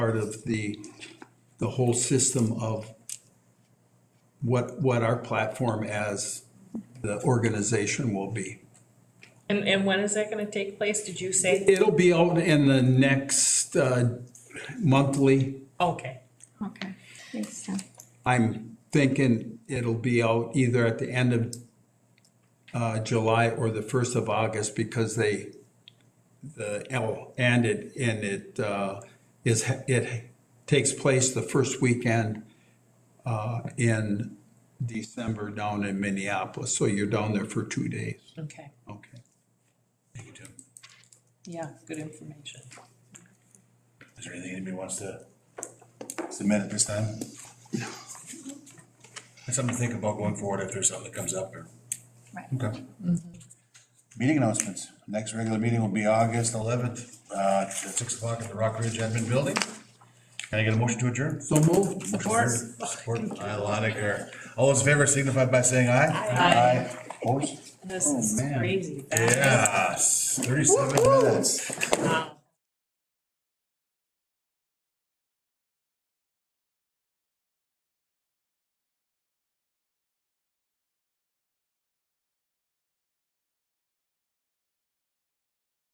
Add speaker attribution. Speaker 1: part of the, the whole system of what, what our platform as the organization will be.
Speaker 2: And, and when is that gonna take place, did you say?
Speaker 1: It'll be out in the next uh, monthly.
Speaker 2: Okay,
Speaker 3: Okay, thanks, Tom.
Speaker 1: I'm thinking it'll be out either at the end of uh, July or the first of August because they, the L, and it, and it uh, is, it takes place the first weekend uh, in December down in Minneapolis. So you're down there for two days.
Speaker 2: okay,
Speaker 1: Okay. Thank you, Tim.
Speaker 2: yeah, good information.
Speaker 4: Is there anything anybody wants to submit at this time? That's something to think about going forward if there's something that comes up or.
Speaker 3: Right.
Speaker 4: Okay. Meeting announcements. Next regular meeting will be August eleventh, uh, at six o'clock at the Rock Ridge Admin Building. Can I get a motion to adjourn?
Speaker 1: So moved.
Speaker 4: Support. Support by Lotiger. All those in favor signify by saying aye. Aye. Opposed?
Speaker 2: This is crazy. That is-
Speaker 4: Yes, thirty-seven minutes.
Speaker 2: wow.